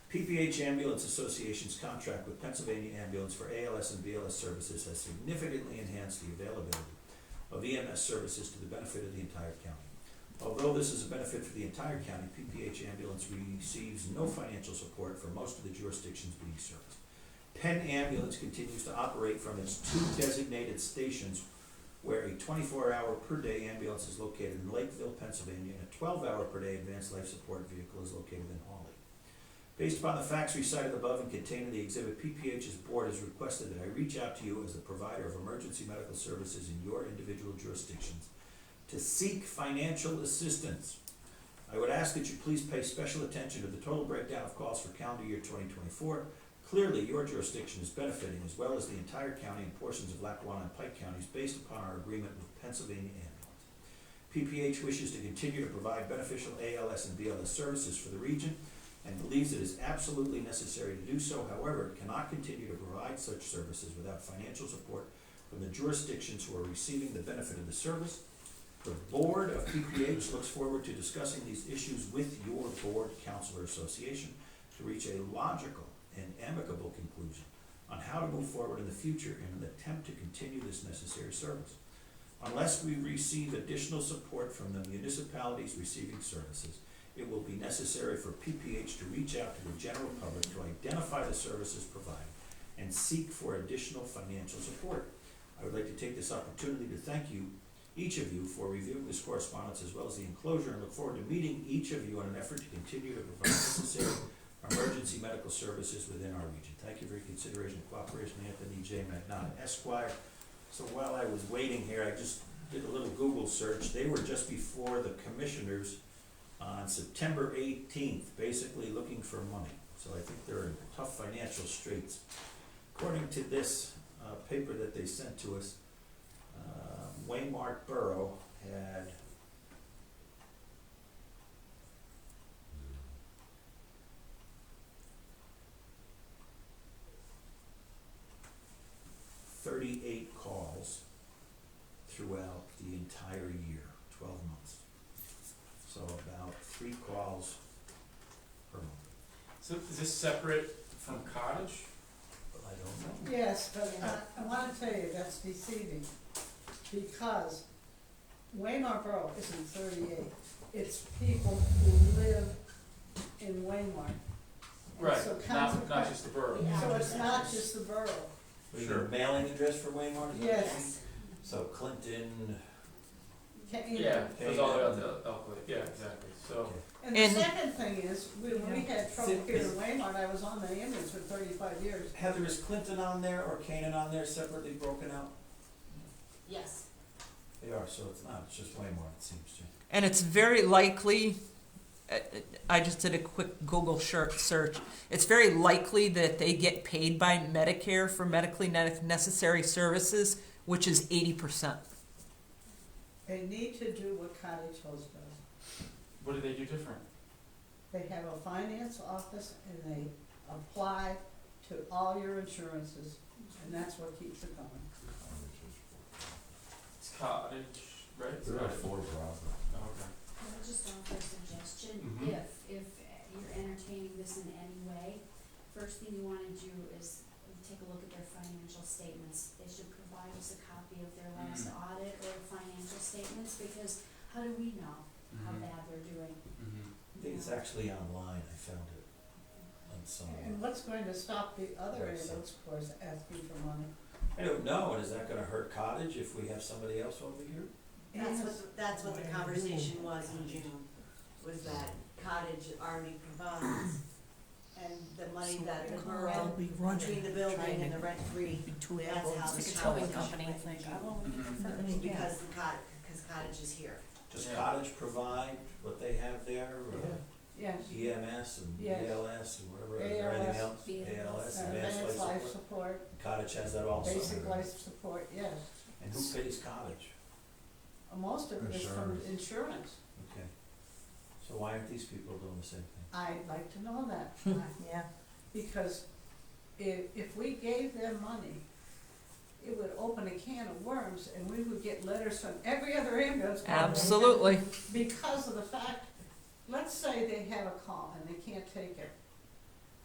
PPH Ambulance Association's contract with Pennsylvania Ambulance for ALS and BLS services has significantly enhanced the availability of EMS services to the benefit of the entire county. Although this is a benefit for the entire county, PPH Ambulance receives no financial support for most of the jurisdictions being served. Penn Ambulance continues to operate from its two designated stations where a twenty-four hour per day ambulance is located in Lakeville, Pennsylvania, and a twelve hour per day advanced life support vehicle is located in Hawley. Based upon the facts recited above and contained in the exhibit, PPH's board has requested that I reach out to you as the provider of emergency medical services in your individual jurisdictions to seek financial assistance. I would ask that you please pay special attention to the total breakdown of costs for calendar year twenty twenty-four. Clearly, your jurisdiction is benefiting as well as the entire county and portions of Lackawanna and Pike counties based upon our agreement with Pennsylvania Ambulance. PPH wishes to continue to provide beneficial ALS and BLS services for the region and believes it is absolutely necessary to do so. However, it cannot continue to provide such services without financial support from the jurisdictions who are receiving the benefit of the service. The board of PPH looks forward to discussing these issues with your board counselor association to reach a logical and amicable conclusion on how to move forward in the future in an attempt to continue this necessary service. Unless we receive additional support from the municipalities receiving services, it will be necessary for PPH to reach out to the general public to identify the services provided and seek for additional financial support. I would like to take this opportunity to thank you, each of you, for reviewing this correspondence as well as the enclosure and look forward to meeting each of you in an effort to continue to provide necessary emergency medical services within our region. Thank you for your consideration and cooperation, Anthony J. McNaught Esquire. So while I was waiting here, I just did a little Google search. They were just before the commissioners on September eighteenth, basically looking for money. So I think they're in tough financial straits. According to this uh, paper that they sent to us, uh, Waymark Borough had thirty-eight calls throughout the entire year, twelve months. So about three calls per month. So is this separate from cottage? I don't know. Yes, but I, I wanna tell you, that's deceiving, because Waymar Borough isn't thirty-eight, it's people who live in Waymar. And Right, so not, not consequent- just the borough. Yeah. So it's not just the borough, We have a Sure. mailing address for Waymar? is that what you mean? yes, So Clinton, Ca- you know. Yeah, it goes all the way out to Elkwood, yeah, exactly, so, okay, And the And- second thing is, when we had trouble Sit- here in is- Waymar, I was on the ambulance for thirty-five years, Heather, is Clinton on there or Canaan on there separately broken out? Yes, They are, so it's not, it's just Waymar, it seems to. And it's very likely, uh, I just did a quick Google shir- search. It's very likely that they get paid by Medicare for medically ne- necessary services, which is 80%. they need to do what Cottage Hills does. what do they do different? They have a finance office and they apply to all your insurances, and that's what keeps it going. It's cottage, right? It's cottage. Oh, okay. I would just offer a suggestion, Mhm. if, if you're entertaining this in any way, first thing you wanna do is take a look at their financial statements. They should provide us a copy of their last Mhm. audit or financial statements, because how do we know how Mhm. bad they're doing? Mhm. I think it's actually online, I found it on somewhere. And what's going to stop the other Right, so- ambulance corps asking for money? I don't know, and is that gonna hurt Cottage if we have somebody else over here? That's what, that's what the conversation was in June, was that cottage already provides, and the money that the borough, between the building and the rent free, that's how the towing company. Mhm. Because the cottage, because cottage is here. Does Yeah. Cottage provide what they have there, or Yes, EMS E and Yes. ELS and whatever, is there anything else? ALS, and advanced life uh, life support. support, Cottage has that also. basic life support, yes. And who pays Cottage? Most of it is from insurance. Okay. So why aren't these people doing the same thing? I'd like to know that, Yeah. because if, if we gave them money, it would open a can of worms, and we would get letters from every other ambulance company. Absolutely. because of the fact, let's say they have a call and they can't take it.